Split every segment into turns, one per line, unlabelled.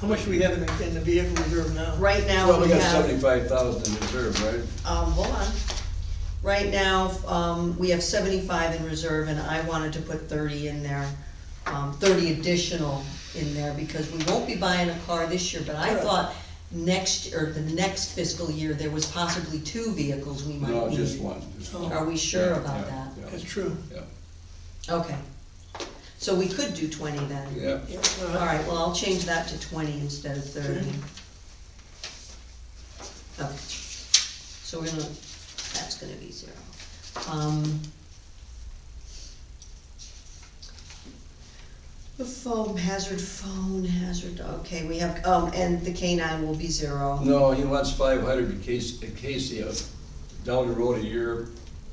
How much do we have in the, in the vehicle reserve now?
Right now,
Well, we
we
got
have,
seventy-five thousand in reserve, right?
um, hold on. Right now, um, we have seventy-five in reserve, and I wanted to put thirty in there, um, thirty additional in there, because we won't be buying a car this year, but I
Correct.
thought next, or the next fiscal year, there was possibly two vehicles we might
No,
need.
just one, just one.
Are we sure
Yeah,
about
yeah,
that?
That's true.
Yeah,
Okay. So we could do twenty then.
yeah, yeah.
Yep, all
All
right.
right, well, I'll change that to twenty instead of thirty.
Okay.
Okay, so we're gonna, that's gonna be zero. Um, The foam, hazard phone, hazard, okay, we have, um, and the K nine will be zero.
No, he wants five hundred in case, in case, he, uh, down the road a year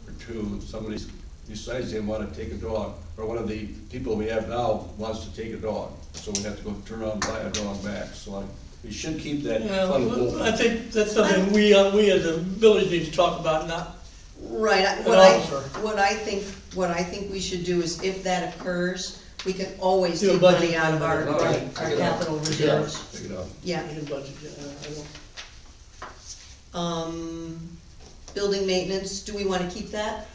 or two, somebody decides they wanna take a dog, or one of the people we have now wants to take a dog, so we have to go turn around and buy a dog back, so I, we should keep that
Yeah,
fund
well, I
open.
think that's something we, uh, we as a village need to talk about, not,
Right, I-
An
what I,
officer.
what I think, what I think we should do is if that occurs, we can always
Do a
take
budget
money out of our,
amendment.
All
our
right, take it out.
capital
Take it out,
reserves.
Take it out.
Yeah,
in budget, uh, I don't.
um, building maintenance, do we wanna keep that?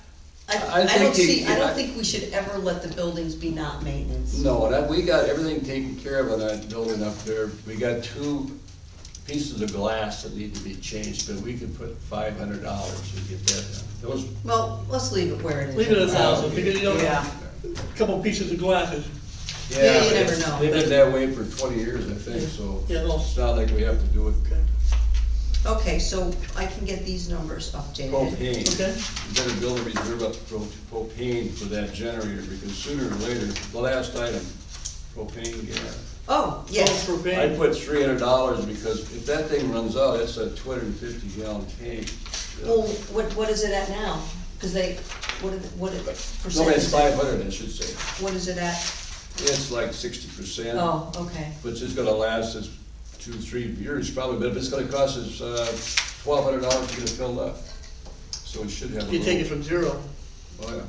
I
I, I
think
don't
you-
see, I
I-
don't think we should ever let the buildings be not maintenance.
No, that, we got everything taken care of on that building up there. We got two pieces of glass that need to be changed, but we could put five hundred dollars to get that done. Those.
Well, let's leave it where it is.
Leave it at a thousand, because you don't
Yeah.
know, a couple pieces of glasses,
Yeah, you
but
never
it's-
know.
They've been that way for twenty years, I think, so
Yeah, no.
it's not like we have to do it
okay,
Okay, so I can get these numbers updated.
propane.
okay,
We Better build a reserve up pro- propane for that generator, because sooner or later, the last item, propane gas.
Oh, yes,
All for
I
paying.
put three hundred dollars because if that thing runs out, it's a two hundred and fifty gallon tank.
well, what, what is it at now? Cause they, what, are the- what, are- percent
No, it's
is it?
five hundred, I should say.
What is it at?
It's like sixty percent,
Oh, okay,
which is gonna last us two, three years probably, but it's gonna cost us, uh, twelve hundred dollars to get it filled up. So it should have a
you take it
little,
from zero,
oh yeah,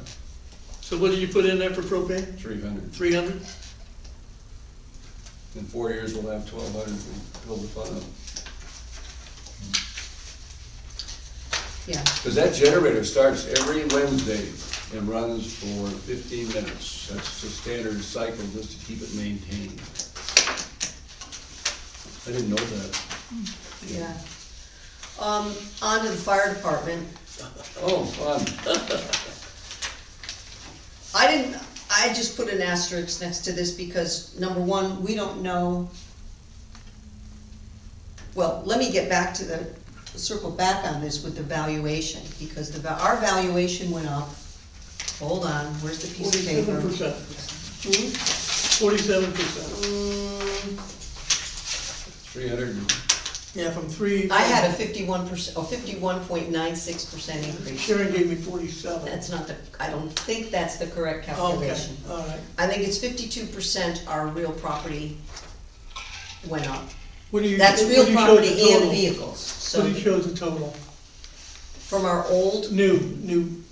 so what did you put in there for propane?
three hundred.
Three hundred?
In four years, we'll have twelve hundred to build the fund up.
yeah,
Cause that generator starts every Wednesday and runs for fifteen minutes. That's the standard cycle just to keep it maintained. I didn't know that.
yeah. Um, on to the fire department.
Oh, fun.
I didn't, I just put an asterisk next to this because, number one, we don't know. Well, let me get back to the, circle back on this with the valuation, because the, va- our valuation went up. Hold on, where's the piece of paper?
Forty-seven percent, forty-seven percent,
Mm,
Three hundred,
yeah, from three.
I had a fifty-one percent, oh, fifty-one point nine six percent increase.
Sharon gave me forty-seven.
That's not the, I don't think that's the correct
Okay,
calculation.
all right.
I think it's fifty-two percent our real property went up.
What do you?
That's
what
real
do you show
property
the total?
and vehicles, so
What do you show the total?
from our old
New, new,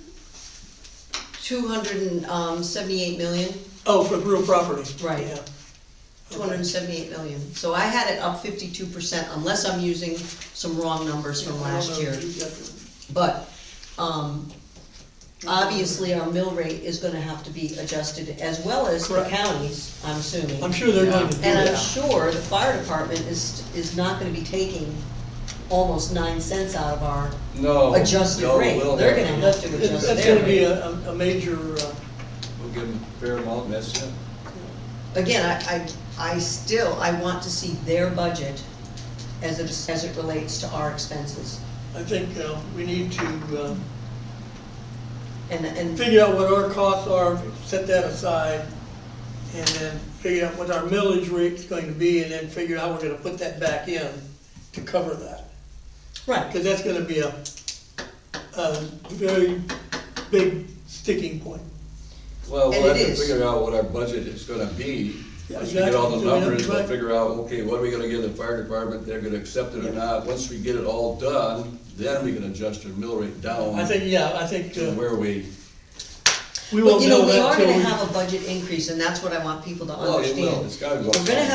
two hundred and um, seventy-eight million,
oh, for real property.
Right.
Yeah.
two hundred and seventy-eight million. So I had it up fifty-two percent, unless I'm using some wrong numbers from last year. But, um, obviously, our mill rate is gonna have to be adjusted, as well as the
Correct.
counties, I'm assuming.
I'm sure they're going to do
And I'm
that.
sure the fire department is, is not gonna be taking almost nine cents out of our
no.
adjusted
no,
rate.
we'll
They're
have-
gonna have to adjust
That's
their
gonna be
rate.
a, a- a major, uh,
We'll give them a fair amount, and that's it.
Again, I, I, I still, I want to see their budget as it, as it relates to our expenses.
I think, uh, we need to, uh,
And, and,
figure out what our costs are, set that aside, and then figure out what our millage rate's going to be, and then figure out how we're gonna put that back in to cover that.
right,
Cause that's gonna be a, a very big sticking point.
Well,
And
we'll
it
have to
is.
figure out what our budget is gonna be.
Yeah,
Once we get all the
exactly.
numbers, we'll
Right.
figure out, okay, what are we gonna give the fire department, they're gonna accept it or not. Once we get it all done, then we can adjust our mill rate down
I think, yeah, I think,
to
uh,
where we,
we
but
won't
you know,
know
we
that
are
till
gonna
we.
have a budget increase, and that's what I want people to
well, it
understand.
will, it's gotta go.
We're gonna
up.